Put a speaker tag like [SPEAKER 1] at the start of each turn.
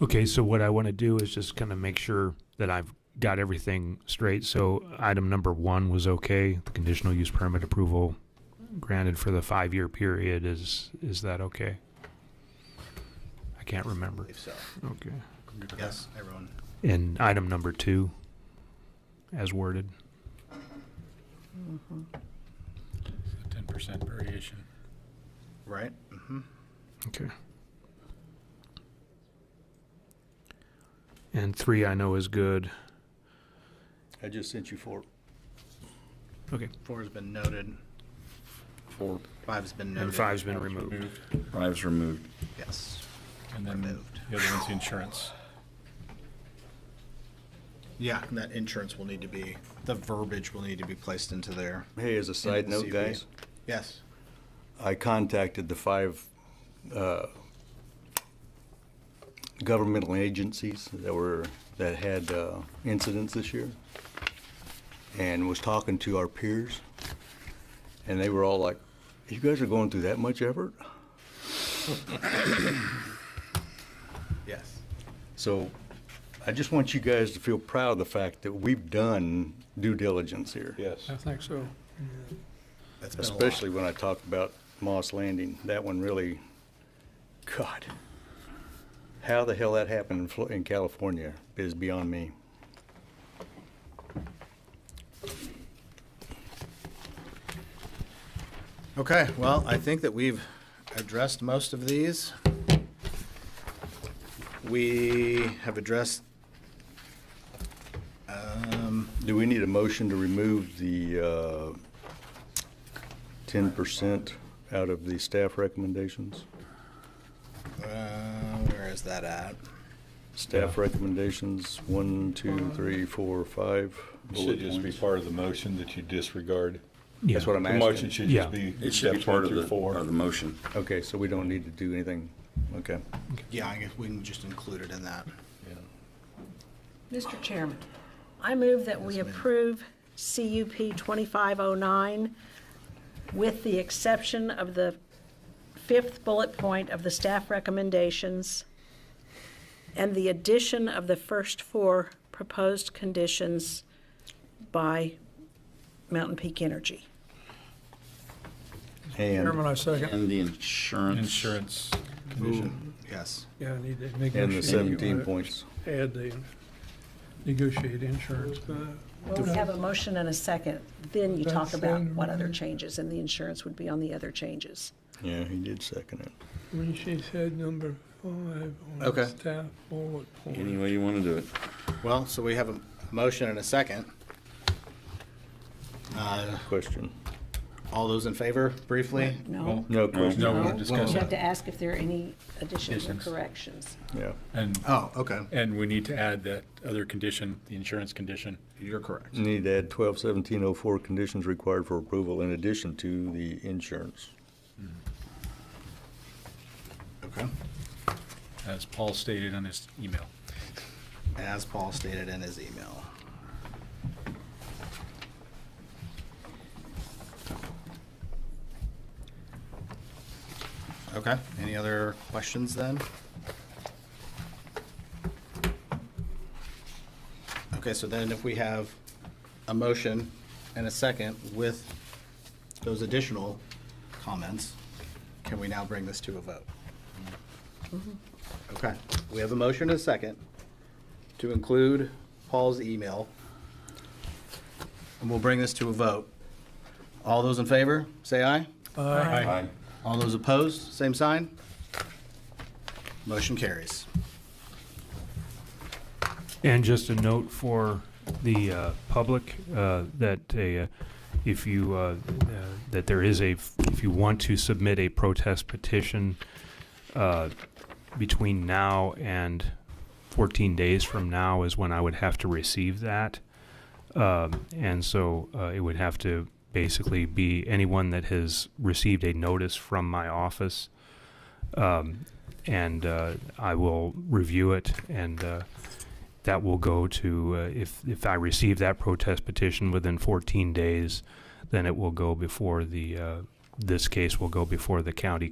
[SPEAKER 1] Okay, so what I want to do is just kind of make sure that I've got everything straight. So item number one was okay. The conditional use permit approval granted for the five-year period is, is that okay? I can't remember.
[SPEAKER 2] believe so.
[SPEAKER 1] Okay.
[SPEAKER 2] Yes, everyone.
[SPEAKER 1] And item number two, as worded.
[SPEAKER 3] Ten percent variation.
[SPEAKER 2] Right? Mm-hmm.
[SPEAKER 1] Okay. And three I know is good.
[SPEAKER 4] I just sent you four.
[SPEAKER 1] Okay.
[SPEAKER 2] Four's been noted.
[SPEAKER 4] Four.
[SPEAKER 2] Five's been noted.
[SPEAKER 1] And five's been removed.
[SPEAKER 3] Moved,
[SPEAKER 4] Five's removed.
[SPEAKER 2] Yes.
[SPEAKER 3] and then
[SPEAKER 2] Removed.
[SPEAKER 3] the other one's the insurance.
[SPEAKER 2] Yeah, and that insurance will need to be, the verbiage will need to be placed into there.
[SPEAKER 5] Hey, as a side
[SPEAKER 2] In the
[SPEAKER 5] note,
[SPEAKER 2] CBA.
[SPEAKER 5] guys,
[SPEAKER 2] Yes.
[SPEAKER 5] I contacted the five uh, governmental agencies that were, that had uh, incidents this year, and was talking to our peers, and they were all like, you guys are going through that much effort?
[SPEAKER 2] Yes.
[SPEAKER 5] So I just want you guys to feel proud of the fact that we've done due diligence here.
[SPEAKER 4] Yes.
[SPEAKER 1] think so.
[SPEAKER 2] That's been a lot.
[SPEAKER 5] Especially when I talked about Moss Landing, that one really, God, how the hell that happened in Flo- in California is beyond me.
[SPEAKER 2] Okay, well, I think that we've addressed most of these. We have addressed, um,
[SPEAKER 5] Do we need a motion to remove the uh, ten percent out of the staff recommendations?
[SPEAKER 2] uh, where is that at?
[SPEAKER 5] Staff recommendations, one, two, three, four, five.
[SPEAKER 6] Should
[SPEAKER 5] bullet
[SPEAKER 6] just be
[SPEAKER 5] points.
[SPEAKER 6] part of the motion that you disregard.
[SPEAKER 5] That's what I'm
[SPEAKER 6] The motion
[SPEAKER 5] asking.
[SPEAKER 6] should
[SPEAKER 1] Yeah.
[SPEAKER 6] just be
[SPEAKER 4] It should be
[SPEAKER 6] steps
[SPEAKER 4] part
[SPEAKER 6] one
[SPEAKER 4] of
[SPEAKER 6] through
[SPEAKER 4] the,
[SPEAKER 6] four.
[SPEAKER 4] of the motion.
[SPEAKER 5] Okay, so we don't need to do anything, okay.
[SPEAKER 2] Yeah, I guess we can just include it in that.
[SPEAKER 7] Mr. Chairman, I move that we
[SPEAKER 2] Yes, ma'am.
[SPEAKER 7] approve CUP 2509 with the exception of the fifth bullet point of the staff recommendations and the addition of the first four proposed conditions by Mountain Peak Energy.
[SPEAKER 5] And,
[SPEAKER 8] Chairman, I second.
[SPEAKER 4] And the insurance.
[SPEAKER 3] Insurance
[SPEAKER 2] Vision. Yes.
[SPEAKER 8] Yeah, I need to make.
[SPEAKER 5] and the seventeen points.
[SPEAKER 8] Add the negotiate insurance.
[SPEAKER 7] Well, we have a motion and a second, then you talk
[SPEAKER 8] That's
[SPEAKER 7] about
[SPEAKER 8] fine.
[SPEAKER 7] what other changes, and the insurance would be on the other changes.
[SPEAKER 5] Yeah, he did second it.
[SPEAKER 8] When she said number five on
[SPEAKER 2] Okay.
[SPEAKER 8] the staff bullet
[SPEAKER 4] Any
[SPEAKER 8] point.
[SPEAKER 4] way you want to do it.
[SPEAKER 2] Well, so we have a motion and a second. Uh,
[SPEAKER 5] Question.
[SPEAKER 2] All those in favor, briefly?
[SPEAKER 7] Oh, No?
[SPEAKER 5] No question.
[SPEAKER 3] No, we're discussing.
[SPEAKER 7] You have to ask if there are any additions or
[SPEAKER 3] Additions.
[SPEAKER 7] corrections.
[SPEAKER 5] Yeah.
[SPEAKER 3] and,
[SPEAKER 2] Oh, okay.
[SPEAKER 3] and we need to add that other condition, the insurance condition.
[SPEAKER 2] You're correct.
[SPEAKER 5] Need to add twelve seventeen oh four conditions required for approval in addition to the insurance.
[SPEAKER 2] Okay.
[SPEAKER 3] as Paul stated on his email.
[SPEAKER 2] As Paul stated in his email. Okay, any other questions then? Okay, so then if we have a motion and a second with those additional comments, can we now bring this to a vote? Okay, we have a motion and a second to include Paul's email. And we'll bring this to a vote. All those in favor, say aye.
[SPEAKER 3] Aye.
[SPEAKER 2] All those opposed, same sign. Motion carries.
[SPEAKER 1] And just a note for the uh, public uh, that a, uh, if you uh, uh, that there is a if you want to submit a protest petition uh, between now and 14 days from now is when I would have to receive that, um, and so uh, it would have to basically be anyone that has received a notice from my office, um, and uh, I will review it and. Uh, that will go to, uh, if, if I receive that protest petition within 14 days, then it will go before the, uh, this case will go before the county